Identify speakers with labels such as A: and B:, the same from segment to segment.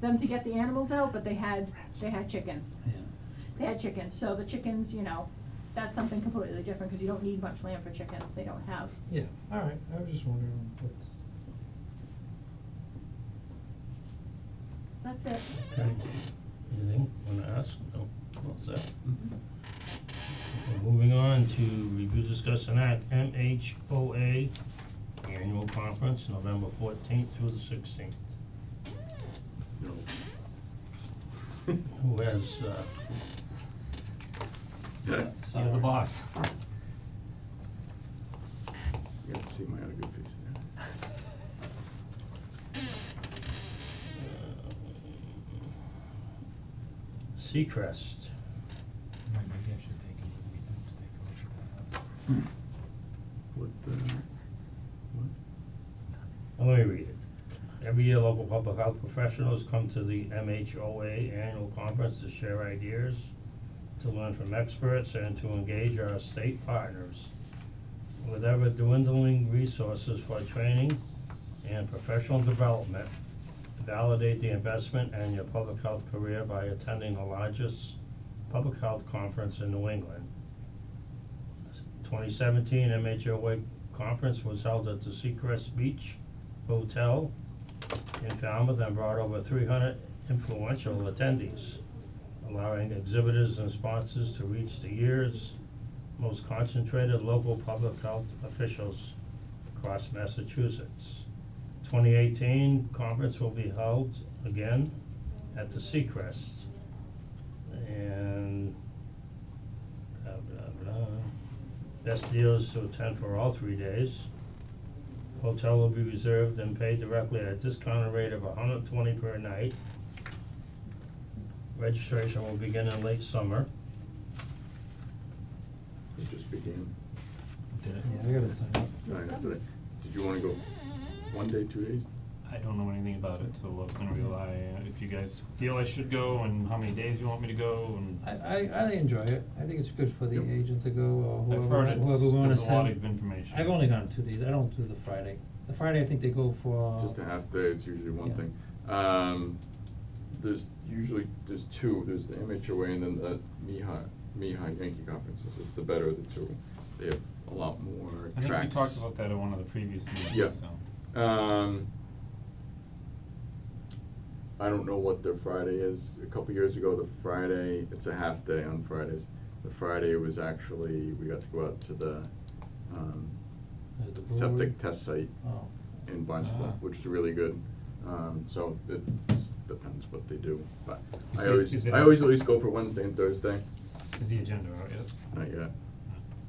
A: them to get the animals out, but they had, they had chickens.
B: yeah.
A: They had chickens, so the chickens, you know, that's something completely different, cause you don't need much land for chickens, they don't have.
C: Yeah, all right, I was just wondering what's,
A: That's it.
B: Okay, anything wanna ask? No, all set. Okay, Moving on to review, discuss and act MHOA Annual Conference, November fourteenth through the sixteenth.
D: No.
B: Who has uh
E: You're the boss.
D: You have to see my other good face there.
B: Seacrest.
E: Maybe I should take a weekend to take a look at that.
D: What, uh, what?
B: Let me read it. Every year, local public health professionals come to the MHOA annual conference to share ideas, to learn from experts, and to engage our state partners. With ever dwindling resources for training and professional development, validate the investment in your public health career by attending the largest public health conference in New England. 2017 MHOA conference was held at the Seacrest Beach Hotel in Falmouth and brought over 300 influential attendees, allowing exhibitors and sponsors to reach the year's most concentrated local public health officials across Massachusetts. 2018 conference will be held again at the Seacrest. And blah, blah, blah. Best deals to attend for all three days. Hotel will be reserved and paid directly at a discounted rate of hundred twenty per night. Registration will begin in late summer.
D: It just began.
E: Did it?
C: yeah, I gotta sign up.
D: All right, that's it. Did you wanna go one day, two days?
E: I don't know anything about it, so I'm gonna rely, uh, if you guys feel I should go and how many days you want me to go and.
C: I, I, I enjoy it, I think it's good for the
D: Yep.
C: agent to go or whoever,
E: I've heard it's,
C: whoever we wanna
E: there's a
C: send.
E: lot of information.
C: I've only gone two days, I don't do the Friday, the Friday I think they go for. uh,
D: Just a half day, it's usually one
C: Yeah.
D: thing. Um, there's usually, there's two, there's the MHOA and then the Mihai, Mihai Yankee Conference, which is the better of the two. They have a lot more
E: I
D: tracks.
E: think we talked about that at one of the previous
D: Yeah.
E: meetings, so.
D: Um, I don't know what their Friday is. A couple years ago, the Friday, it's a half day on Fridays. The Friday was actually, we got to go out to the, um,
C: There's the brewery.
D: septic test site
C: Oh,
D: in Barnstable,
E: Ah.
D: which is really good. Um, so it s- depends what they do, but
E: Is
D: I
E: it-
D: always,
E: is it
D: I
E: a-
D: always at least go for Wednesday and Thursday,
E: Is the agenda out yet?
D: not yet,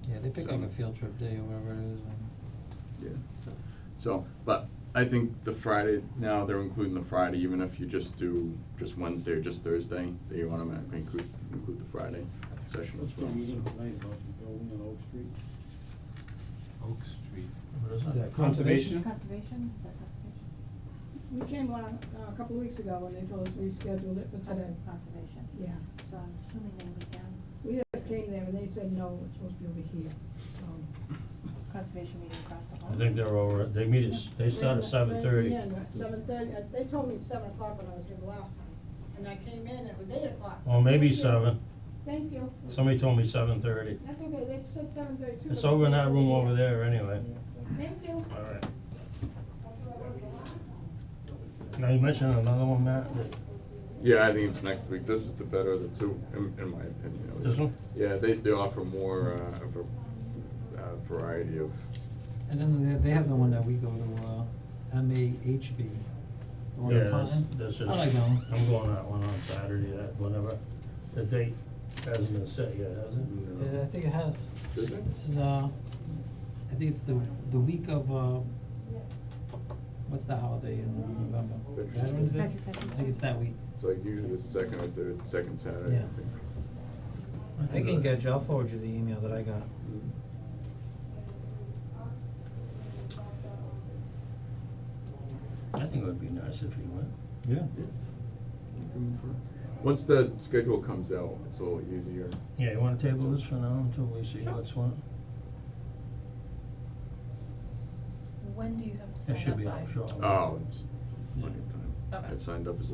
C: yeah, they pick like
D: So-
C: a field trip day or whatever it is, and,
D: yeah. So, but I think the Friday, now they're including the Friday, even if you just do just Wednesday or just Thursday, they automatically include, include the Friday session as well.
F: You're gonna complain about the building on Oak Street?
E: Oak Street.
B: What is
C: Is
B: that?
C: that uh, conservation?
A: Conservation, is that conservation?
G: We came on, uh, a couple of weeks ago and they told us we scheduled it for today.
A: Conservation,
G: Yeah,
A: so I'm assuming they would down.
G: we just came there and they said, no, it's supposed to be over here, so.
A: Conservation meeting across the hall.
B: I think they're over, they meet at, they start at seven thirty.
G: Seven thirty, uh, they told me seven o'clock when I was here the last time, and I came in, it was eight o'clock.
B: Or Oh, maybe
G: Thank you.
B: seven.
G: Thank you.
B: Somebody told me seven thirty.
G: That's okay, they said seven thirty-two.
B: It's over in that room over there anyway.
G: Thank you.
B: Alright. Now, you mentioned another one, Matt, that-
D: Yeah, I think it's next week. This is the better of the two, in, in my opinion. at
B: This
D: least.
B: one?
D: Yeah, they, they offer more, uh, of a, uh, variety of,
C: and then they, they have the one that we go to, uh, M A H B, the one
B: Yeah,
C: in Taunton.
B: that's, that's just.
C: I like that one.
B: I'm going that one on Saturday, that, whenever, the date hasn't been set yet, has it?
C: Yeah, I think it has.
D: Does it?
C: This is, uh, I think it's the, the week of, uh, what's the holiday in November? Veterans
D: Veterans Day.
C: Day?
A: Veterans Day.
C: I think it's that week.
D: it's like usually the second or third, second Saturday, I
C: Yeah.
D: think.
B: I can get you,
C: I'll forward you the email that I got.
D: Mm-hmm.
B: I think it would be nice if you went.
C: Yeah.
D: Yeah. Once the schedule comes out, it's a little easier.
B: Yeah, you wanna table this for now until we see what's what?
H: When do you have to sign
B: It
H: up by?
B: should be out shortly.
D: Oh, it's
B: Yeah.
D: plenty of time.
H: Okay.
D: I've signed up as